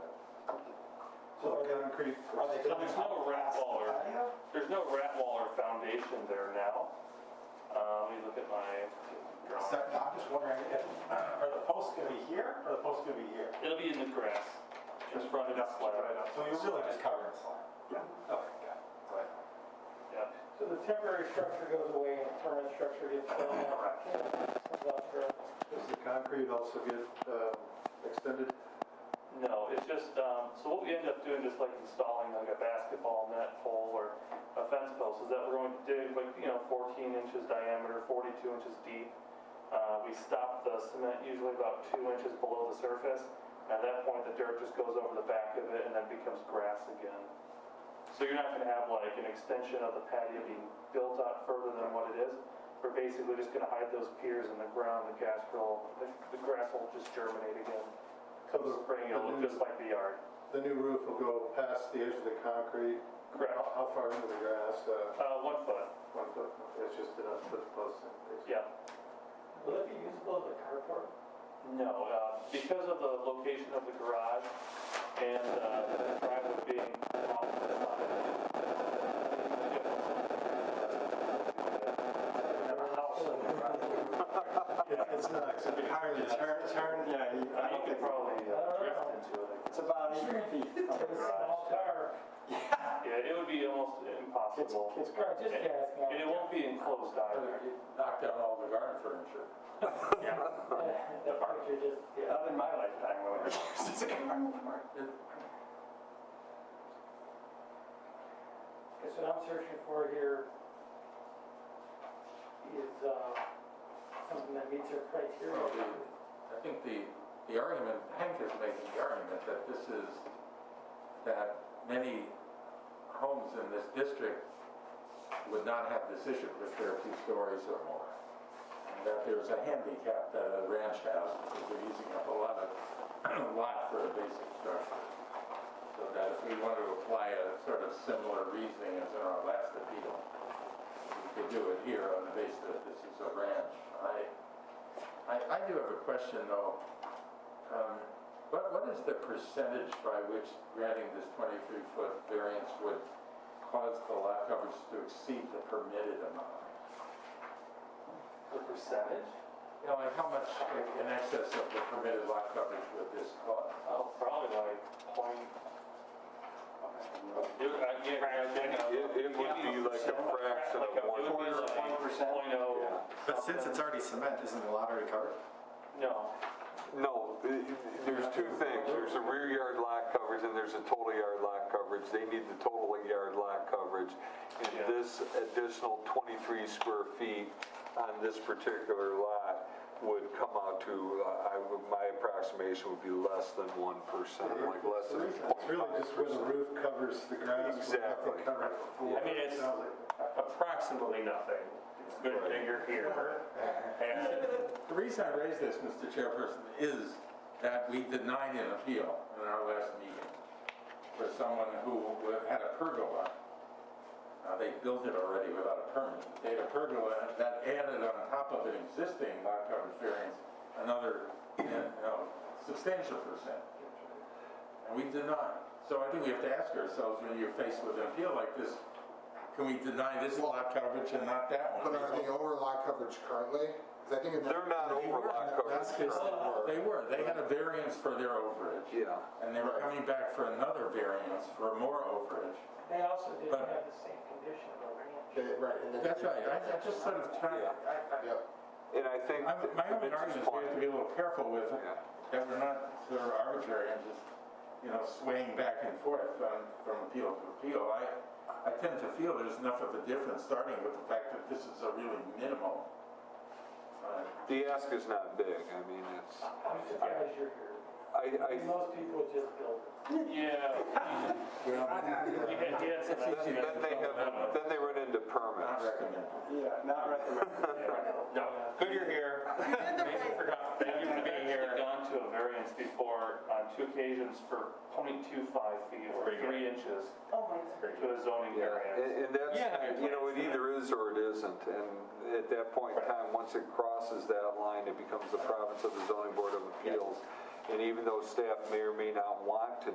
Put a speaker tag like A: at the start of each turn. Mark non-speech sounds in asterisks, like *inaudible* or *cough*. A: So concrete.
B: So there's no rat wall or,
A: Patio?
B: there's no rat wall or foundation there now. Uh, let me look at my
A: So
B: drawing.
A: I'm just wondering, if- are the posts gonna be here, or the posts gonna be here?
B: It'll be in the grass, just running up flat.
A: So you're really just covering the slab?
B: Yeah.
A: Okay, got it. Right.
B: Yeah.
C: So the temporary structure goes away and the permanent structure gets filled out. Comes up for-
D: Does the concrete also get um, extended?
B: No, it's just, um, so what we end up doing is like installing like a basketball net pole or a fence post, is that we're going to dig like, you know, 14 inches diameter, 42 inches deep. Uh, We stop the cement usually about two inches below the surface. At that point, the dirt just goes over the back of it and then becomes grass again. So you're not going to have like an extension of the patio being built out further than what it is. We're basically just going to hide those piers in the ground, the grass will, the- the grass will just germinate again. Come spring, it'll look just like the yard.
D: The new roof will go past the edge of the concrete?
B: Correct.
D: How how far into the grass? Uh,
B: Uh, one foot,
D: One foot, it's just enough to post it.
B: yeah.
C: Will it be usable as a carport?
B: No, uh, because of the location of the garage and uh, the driveway being off the side. Have a house in the driveway.
A: Yeah, It's not, it's entirely turn, turn, yeah. you- I don't
B: You could
A: think-
B: probably uh, drift into it.
A: It's about eight feet from the
C: It's a small
A: garage.
C: car.
B: Yeah, it would be almost
A: Kids,
B: impossible.
A: kids.
C: Or just
B: And
C: asking.
B: and it won't be enclosed either.
E: Knock down all the garden furniture.
C: *laughs* That picture just, yeah.
A: Not in my lifetime, when it was just a carport.
C: Because what I'm searching for here is uh, something that meets our criteria.
E: I think the, the argument, Hank is making the argument that this is, that many homes in this district would not have this issue if they're two stories or more. And That there's a handicap that a ranch has, because they're using up a lot of, *clears throat* lot for a basic structure. So that if we want to apply a sort of similar reasoning as in our last appeal, we could do it here on the basis that this is a ranch. I, I, I do have a question though. Um, What, what is the percentage by which granting this 23-foot variance would cause the lot coverage to exceed the permitted amount?
B: The percentage?
E: You know, like how much in excess of the permitted lot coverage would this cause?
B: Oh, probably like point. It would- I- yeah, I think, uh,
F: It, it would be like a fraction
B: Like a-
F: of
B: it would
F: one.
B: be like
A: Point percent.
B: Point oh.
A: But since it's already cement, isn't the lottery covered?
B: No,
F: No, i- i- there's two things. There's a rear yard lot coverage and there's a total yard lot coverage. They need the total yard lot coverage.
B: Yeah.
F: And this additional 23 square feet on this particular lot would come out to, uh, I, would- my approximation would be less than 1%, like less than
D: It's really just where the roof covers the grass.
F: Exactly.
D: I
G: I mean, it's approximately nothing. It's good that you're here. And
E: The reason I raise this, Mr. Chairperson, is that we denied an appeal in our last meeting for someone who had a pergola. Uh, They built it already without a permit. They had a pergola that added on top of an existing lot coverage variance, another, you know, substantial percent. And we denied. So I think we have to ask ourselves, when you're faced with an appeal like this, can we deny this lot coverage and not that one?
H: But are they over lot coverage currently? 'Cause I think in
F: They're not over lot
H: Last
F: coverage.
H: case they were.
E: They were, they had a variance for their overage.
F: Yeah.
E: And they were coming back for another variance for more overage.
C: They also didn't
E: But-
C: have the same condition of a ranch.
H: They- Right. and then-
E: That's right, I I just sort of try, I-
H: Yep.
F: And I
E: I-
F: think.
E: I'm- my only argument is we have
F: Vince's
E: to
F: point-
E: be a little careful with it,
F: Yeah.
E: that we're not sort of arbitrary and just, you know, swaying back and forth from, from appeal to appeal. I, I tend to feel there's enough of a difference, starting with the fact that this is a really minimal. uh,
F: The ask is not big. I mean, it's,
C: I'm surprised you're here.
F: I, I
C: Most people just build it.
B: yeah. He had, he had some nice
F: Then then they have, then they run into
E: Not
F: permits.
E: recommended.
A: Yeah, not recommended.
G: no, good you're here. Mason forgot,
B: They've
G: thank you for being
B: actually
G: here.
B: gone to a variance before on two occasions for 0.25 feet or
G: Pretty good.
B: three inches
C: Oh, my.
B: to a zoning
F: Yeah,
B: variance.
F: and and that's,
G: Yeah.
F: you know, it either is or it isn't. And at that point in time, once it crosses that line, it becomes the province of the zoning board of appeals. And even though staff may or may not want to